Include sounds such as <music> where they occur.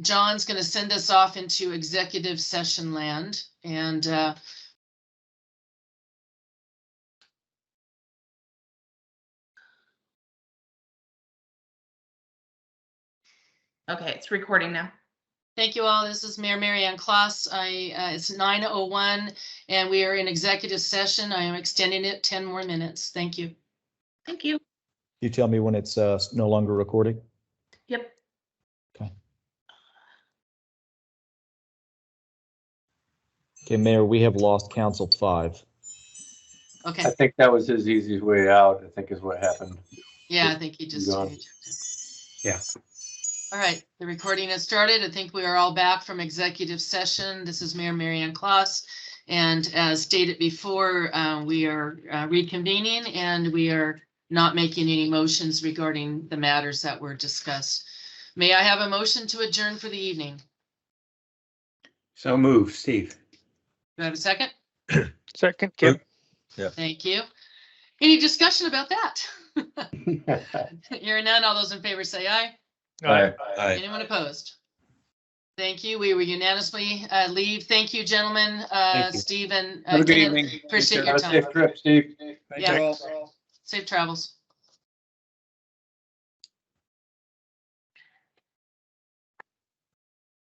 John's going to send us off into executive session land and uh, Okay, it's recording now. thank you all. This is Mayor Mary Ann Kloss. I, uh, it's 9:01 and we are in executive session. I am extending it 10 more minutes. Thank you. Thank you. You tell me when it's uh, no longer recording? Yep. Okay, Mayor, we have lost Council Five. Okay, I think that was his easiest way out, I think is what happened. yeah, I think he just. Gone. Yeah. All right, the recording has started. I think we are all back from executive session. This is Mayor Mary Ann Kloss. And as stated before, uh, we are uh, reconvening and we are not making any motions regarding the matters that were discussed. May I have a motion to adjourn for the evening? So move, Steve. Do I have a second? Second, Kim. Thank you. Any discussion about that? <laughs> Hearing none, all those in favor say aye. Aye. Anyone opposed? Thank you. We were unanimously uh, leave. Thank you, gentlemen. Uh, Thank you. Steve and uh, Have a good Kenneth, evening. appreciate your Have a time. Safe trip, Steve. Yeah. Safe travels.